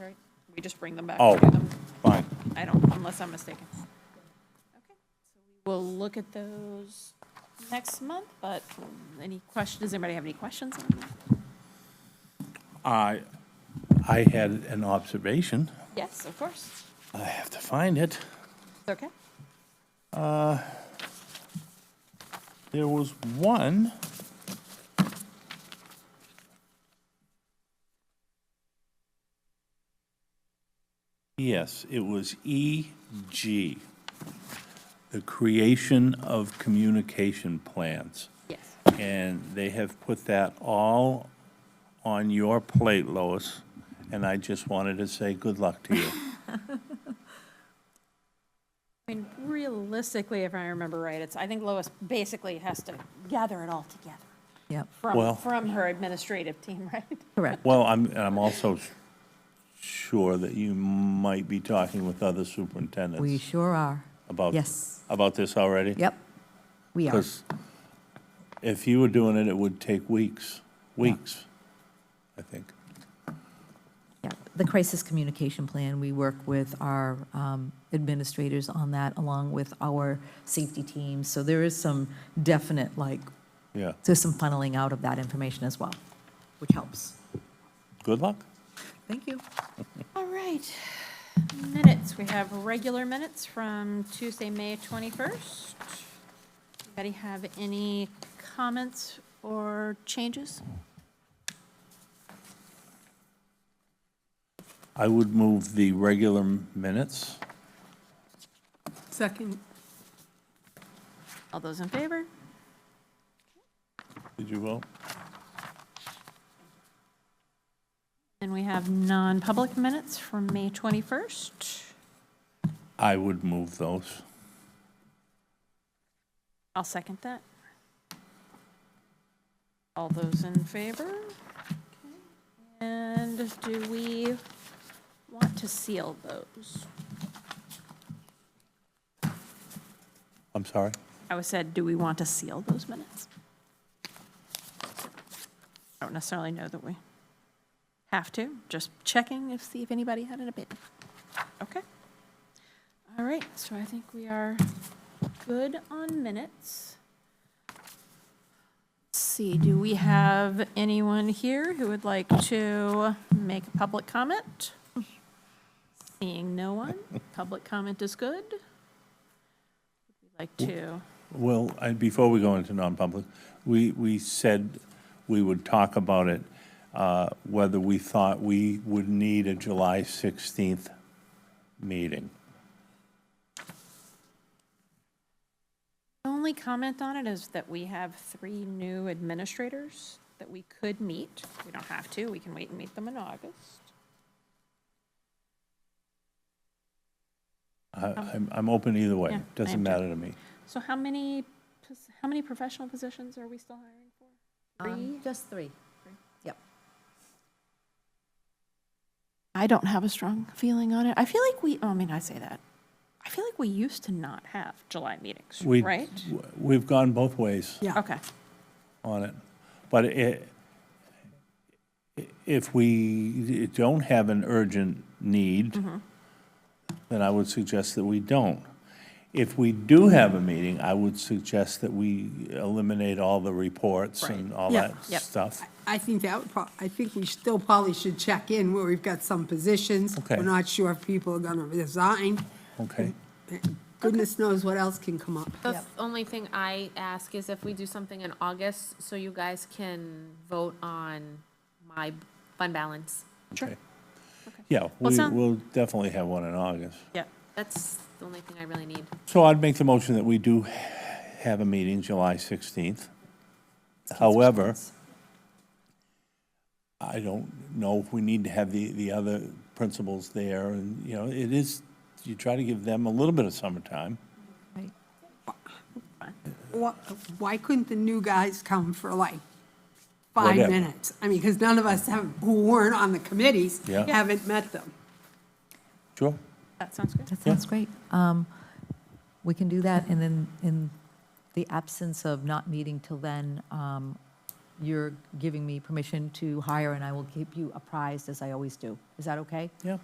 We just bring them back. Oh. to them. Fine. I don't, unless I'm mistaken. Okay, so We'll look at those next month, but any questions, does anybody have any questions on that? I, I had an observation. Yes, of course. I have to find it. It's Okay. There was one. Yes, it was EG, the creation of communication plans. Yes. And they have put that all on your plate, Lois, and I just wanted to say good luck to you. I mean, realistically, if I remember right, it's, I think Lois basically has to gather it all together Yep, Well- from, from her administrative team, right? correct. Well, I'm, and I'm also s- sure that you might be talking with other superintendents. We sure are. about Yes. about this already? Yep, we are. Because if you were doing it, it would take weeks, weeks, I think. Yeah, The crisis communication plan, we work with our um, administrators on that, along with our safety teams. So there is some definite, like, Yeah. there's some funneling out of that information as well, which helps. Good luck. Thank you. All right, minutes, we have regular minutes from Tuesday, May 21st. Anybody have any comments or changes? I would move the regular m- minutes. Second, All those in favor? Did you vote? And we have non-public minutes from May 21st. I would move those. I'll second that. All those in favor? Okay. And do we want to seal those? I'm sorry. I was said, do we want to seal those minutes? I don't necessarily know that we have to, just checking if, see if anybody had an opinion. Okay. All right, so I think we are good on minutes. Let's See, do we have anyone here who would like to make a public comment? Seeing no one, public comment is good. Like to. Well, I- before we go into non-public, we, we said we would talk about it, uh, whether we thought we would need a July 16th meeting. The only comment on it is that we have three new administrators that we could meet. We don't have to, we can wait and meet them in August. I- I'm, I'm open either Yeah, way. I Doesn't am too. matter to me. So how many, pos- how many professional positions are we still hiring for? Three? Um, Just three. Yep. I don't have a strong feeling on it. I feel like we, oh, I mean, I say that. I feel like we used to not have July meetings, We- right? w- We've gone both ways yeah. Okay, on it. But i- if we don't have an urgent need, then I would suggest that we don't. If we do have a meeting, I would suggest that we eliminate all the reports and all Yeah. that Yep. stuff. I think that would, prob- I think we still probably should check in where we've got some positions. Okay. We're not sure if people are gonna resign. Okay? Goodness knows what else can come up. The only thing I ask is if we do something in August, so you guys can vote on my fund balance. sure, Okay. Yeah, we, sound- we'll definitely have one in August. yeah. That's the only thing I really need. So I'd make the motion that we do have a meeting July 16th. However, I don't know if we need to have the, the other principals there, and, you know, it is, you try to give them a little bit of summertime. Right. Wha- Why couldn't the new guys come for like five Whatever. minutes? I mean, because none of us have, who weren't on the committees, Yeah. Yeah. haven't met them. Sure. That sounds good. That sounds great. Um, We can do that, and then in the absence of not meeting till then, um, you're giving me permission to hire, and I will keep you apprised, as I always do. Is that okay? Yeah.